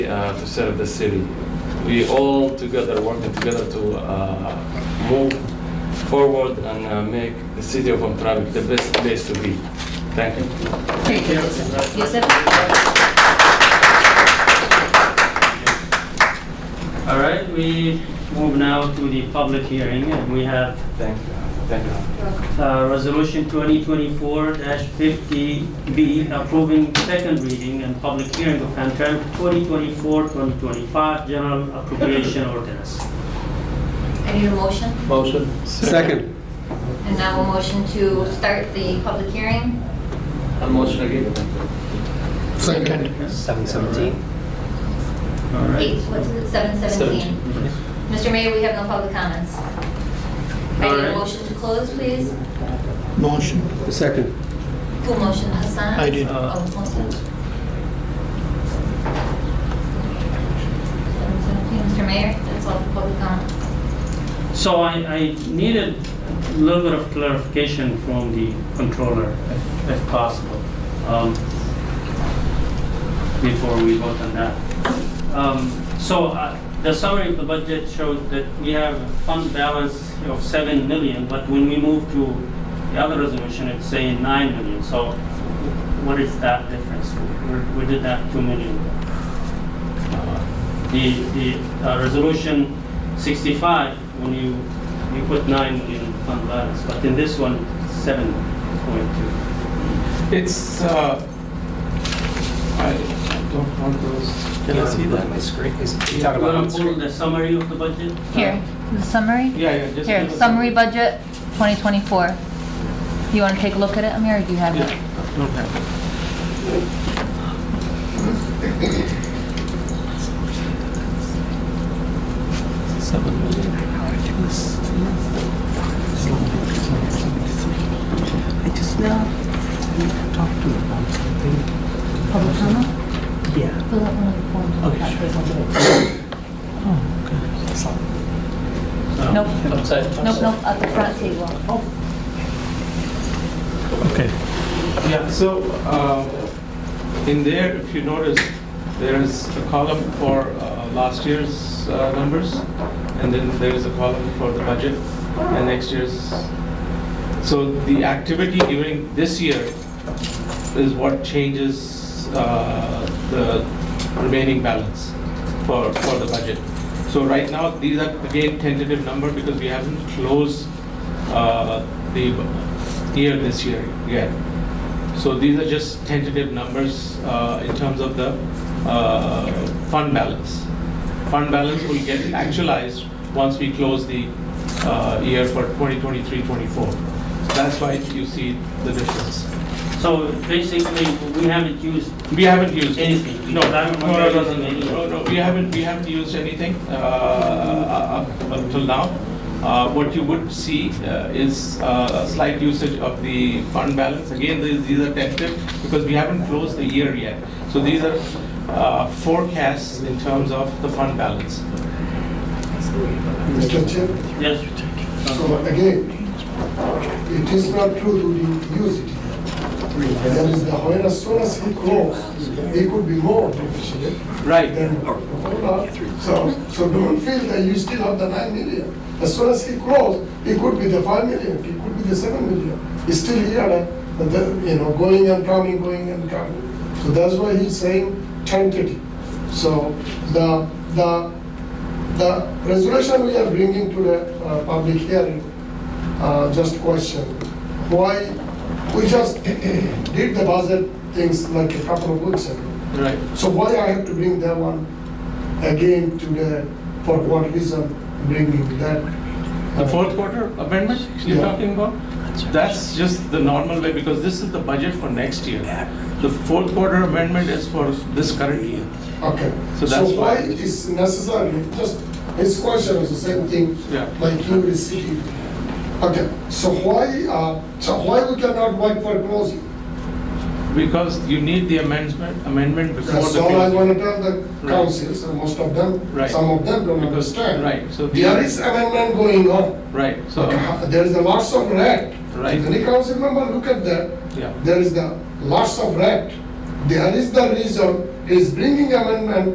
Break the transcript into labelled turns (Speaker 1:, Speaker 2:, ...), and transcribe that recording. Speaker 1: uh, to serve the city. We all together, working together to uh, move forward and uh, make the city of Hamtramck the best place to be. Thank you.
Speaker 2: Thank you.
Speaker 3: Yusuf?
Speaker 4: All right, we move now to the public hearing, and we have
Speaker 1: Thank you. Thank you.
Speaker 4: uh, Resolution 2024-50B approving second reading and public hearing of Hamtramck 2024-2025 General Appropriation Ordinance.
Speaker 3: I need a motion.
Speaker 2: Motion.
Speaker 5: Second.
Speaker 3: And now a motion to start the public hearing.
Speaker 2: motion again.
Speaker 5: Second.
Speaker 6: Seven seventeen.
Speaker 4: All right.
Speaker 3: Eight, what's it, seven seventeen? Mr. Mayor, we have no public comments. I need a
Speaker 4: Alright.
Speaker 3: motion to close, please.
Speaker 5: Motion. Second.
Speaker 3: Who motioned, Hassan?
Speaker 5: I did.
Speaker 4: Uh,
Speaker 3: Oh, motion. Seven seventeen, Mr. Mayor, that's all for public comment.
Speaker 4: So I, I needed a little bit of clarification from the controller, if- if possible, um, before we vote on that. Um, So uh, the summary of the budget showed that we have a fund balance of 7 million, but when we move to the other resolution, it's saying 9 million. So what is that difference? We- We did that 2 million
Speaker 1: Uh,
Speaker 4: the, the uh, resolution 65, when you, you put 9 million fund balance, but in this one, 7.2.
Speaker 1: It's, uh, I don't want those. Can I see that?
Speaker 6: My screen is, you
Speaker 4: You
Speaker 6: talk about.
Speaker 4: want
Speaker 6: on
Speaker 4: to pull
Speaker 6: screen.
Speaker 4: the summary of the budget?
Speaker 7: Here, the summary?
Speaker 1: Yeah, yeah. just
Speaker 7: Here,
Speaker 1: give us a-
Speaker 7: summary budget 2024. Do you want to take a look at it, Amir, or do you have it?
Speaker 8: I just now talked to you about something.
Speaker 7: Public comment?
Speaker 8: Yeah.
Speaker 7: Fill out one of the forms.
Speaker 8: Okay,
Speaker 7: That
Speaker 8: sure.
Speaker 7: takes a little bit.
Speaker 8: Oh, okay. So- Oh,
Speaker 7: Nope, nope, nope, at the front table.
Speaker 8: Okay.
Speaker 1: Yeah, so uh, in there, if you notice, there is a column for uh, last year's uh, numbers, and then there is a column for the budget and next year's. So the activity during this year is what changes uh, the remaining balance for, for the budget. So right now, these are again tentative number because we haven't closed uh, the year this year yet. So these are just tentative numbers uh, in terms of the uh, fund balance. Fund balance will get actualized once we close the uh, year for 2023-24. So That's why you see the difference.
Speaker 4: Uh, So basically, we haven't used,
Speaker 1: We haven't used.
Speaker 4: Anything.
Speaker 1: No, no,
Speaker 4: I
Speaker 1: no,
Speaker 4: don't
Speaker 1: no, no,
Speaker 4: remember using any.
Speaker 1: no, no, we haven't, we haven't used anything uh, up until now. Uh, What you would see uh, is uh, a slight usage of the fund balance. Again, these these are tentative because we haven't closed the year yet. So these are uh, forecasts in terms of the fund balance.
Speaker 9: Mr. Chair,
Speaker 4: yes,
Speaker 9: so again, it is not true that he used it. That is the, when as soon as he grows, he could be more beneficial
Speaker 1: Right.
Speaker 9: than, so, so don't feel that you still have the nine million. As soon as he grows, he could be the five million, he could be the seven million. He's still here, uh, but the- you know, going and coming, going and coming. So that's why he's saying tentative. So the, the the resolution we are bringing to the uh, public hearing, uh, just question, why, we just did the budget things like a couple of weeks ago.
Speaker 1: Right.
Speaker 9: So why I have to bring that one again to the, for what reason bringing that?
Speaker 1: The fourth quarter amendment you're
Speaker 9: Yeah.
Speaker 1: talking about? That's just the normal way because this is the budget for next year. The fourth quarter amendment is for this current year.
Speaker 9: Okay.
Speaker 1: So that's why-
Speaker 9: why it's necessary, just, his question is the same thing.
Speaker 1: Yeah.
Speaker 9: Like you received. Okay, so why, uh, so why we cannot wait for closing?
Speaker 1: Because you need the amendment, amendment before
Speaker 9: That's
Speaker 1: the
Speaker 9: all I
Speaker 1: closing.
Speaker 9: want to tell the
Speaker 1: Right.
Speaker 9: councils, and most of them,
Speaker 1: Right.
Speaker 9: some of them don't
Speaker 1: Because-
Speaker 9: understand.
Speaker 1: right, so the-
Speaker 9: There is amendment going on. uh,
Speaker 1: Right, so,
Speaker 9: There is a lots of red.
Speaker 1: Right.
Speaker 9: If any council member look at that,
Speaker 1: yeah.
Speaker 9: there is the lots of red. There is the reason, is bringing amendment